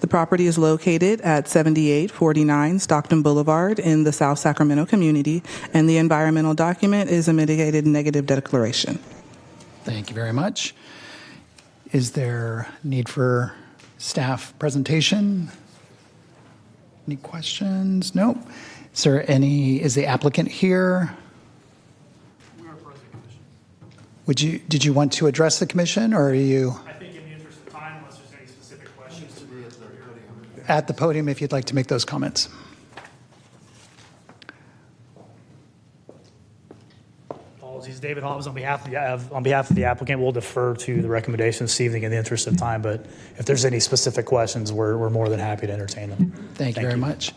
The property is located at 7849 Stockton Boulevard in the South Sacramento community, and the environmental document is a mitigated negative declaration. Thank you very much. Is there need for staff presentation? Any questions? Nope. Is there any, is the applicant here? Would you, did you want to address the commission or are you I think in the interest of time, unless there's any specific questions. at the podium if you'd like to make those comments? Apologies, David Hobbs, on behalf of the, of- on behalf of the applicant, we'll defer to the recommendations this evening in the interest of time, but if there's any specific questions, we're, we're more than happy to entertain them. Thank you very much.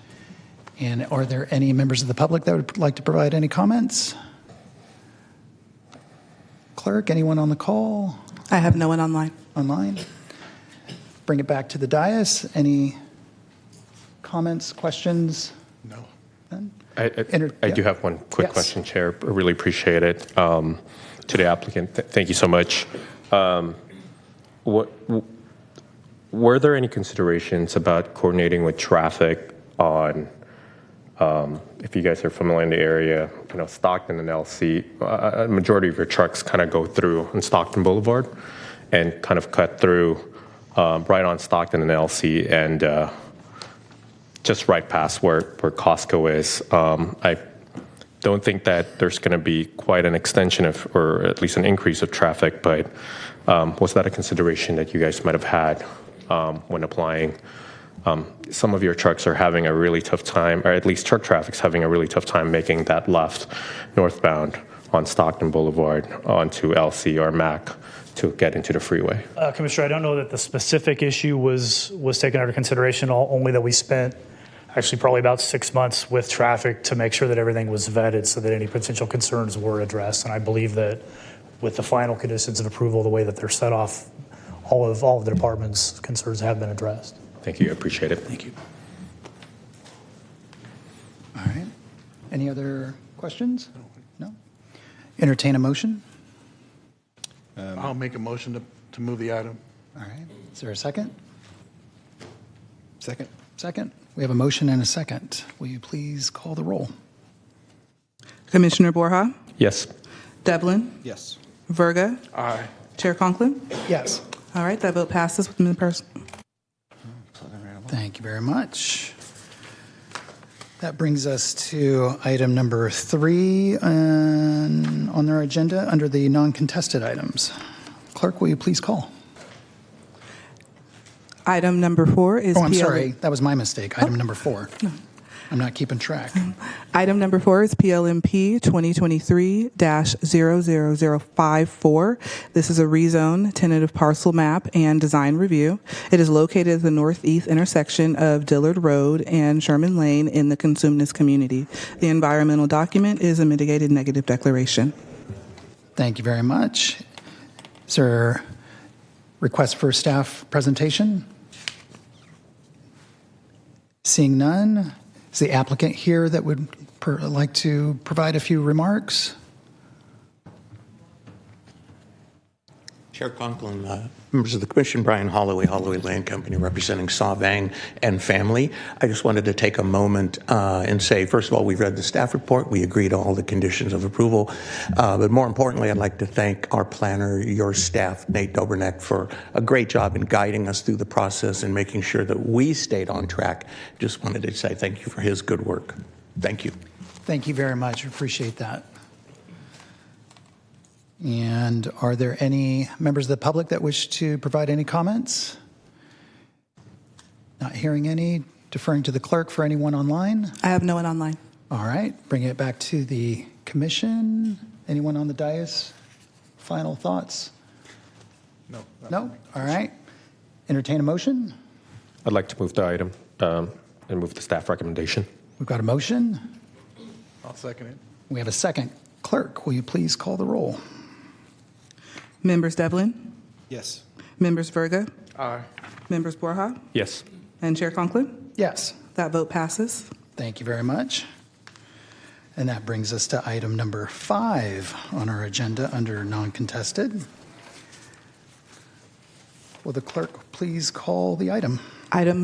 And are there any members of the public that would like to provide any comments? Clerk, anyone on the call? I have no one online. online. Bring it back to the dais. Any comments, questions? No. I- I Enter- I do yeah. have one quick Yes. question, Chair. I Really appreciate it. Um, To the applicant, th- thank you so much. Um, what- w- Were there any considerations about coordinating with traffic on, um, if you guys are familiar in the area, you know, Stockton and LC, uh, a majority of your trucks kind of go through on Stockton Boulevard and kind of cut through um, right on Stockton and LC and uh, just right past where, where Costco is. Um, I don't think that there's going to be quite an extension of, or at least an increase of traffic, but um, was that a consideration that you guys might have had um, when applying? Um, some of your trucks are having a really tough time, or at least truck traffic's having a really tough time making that left northbound on Stockton Boulevard onto LC or MAC to get into the freeway. Uh, Commissioner, I don't know that the specific issue was, was taken under consideration, o- only that we spent actually probably about six months with traffic to make sure that everything was vetted so that any potential concerns were addressed. And I believe that with the final conditions of approval, the way that they're set off, all of, all of the department's concerns have been addressed. Thank you. I appreciate it. Thank you. All right. Any other questions? No? Entertain a motion? I'll make a motion to, to move the item. All right. Is there a second? Second. Second? We have a motion and a second. Will you please call the roll? Commissioner Borja, Yes. Devlin, Yes. Verga, Aye. Chair Conklin. Yes. All right, that vote passes with the person. Thank you very much. That brings us to item number three on on our agenda under the non-contested items. Clerk, will you please call? Item number four is. Oh, I'm PL sorry. That was my mistake. Item number four. I'm not keeping track. Item number four is PLMP 2023-00054. This is a rezone, tentative parcel map, and design review. It is located at the northeast intersection of Dillard Road and Sherman Lane in the Consumnes community. The environmental document is a mitigated negative declaration. Thank you very much. Is there request for staff presentation? Seeing none, is the applicant here that would per- like to provide a few remarks? Chair Conklin, uh, members of the commission, Brian Holloway, Holloway Land Company, representing Sauvang and family. I just wanted to take a moment uh, and say, first of all, we read the staff report. We agree to all the conditions of approval. Uh, But more importantly, I'd like to thank our planner, your staff, Nate Doberneck, for a great job in guiding us through the process and making sure that we stayed on track. Just wanted to say thank you for his good work. Thank you. Thank you very much. Appreciate that. And are there any members of the public that wish to provide any comments? Not hearing any. Deferring to the clerk for anyone online. I have no one online. All right, bring it back to the commission. Anyone on the dais? Final thoughts? No. No? All right. Entertain a motion? I'd like to move the item um, and move the staff recommendation. We've got a motion. I'll second it. We have a second. Clerk, will you please call the roll? Members Devlin, Yes. members Verga, Aye. members Borja, Yes. and Chair Conklin. Yes. That vote passes. Thank you very much. And that brings us to item number five on our agenda under non-contested. Will the clerk please call the item? Item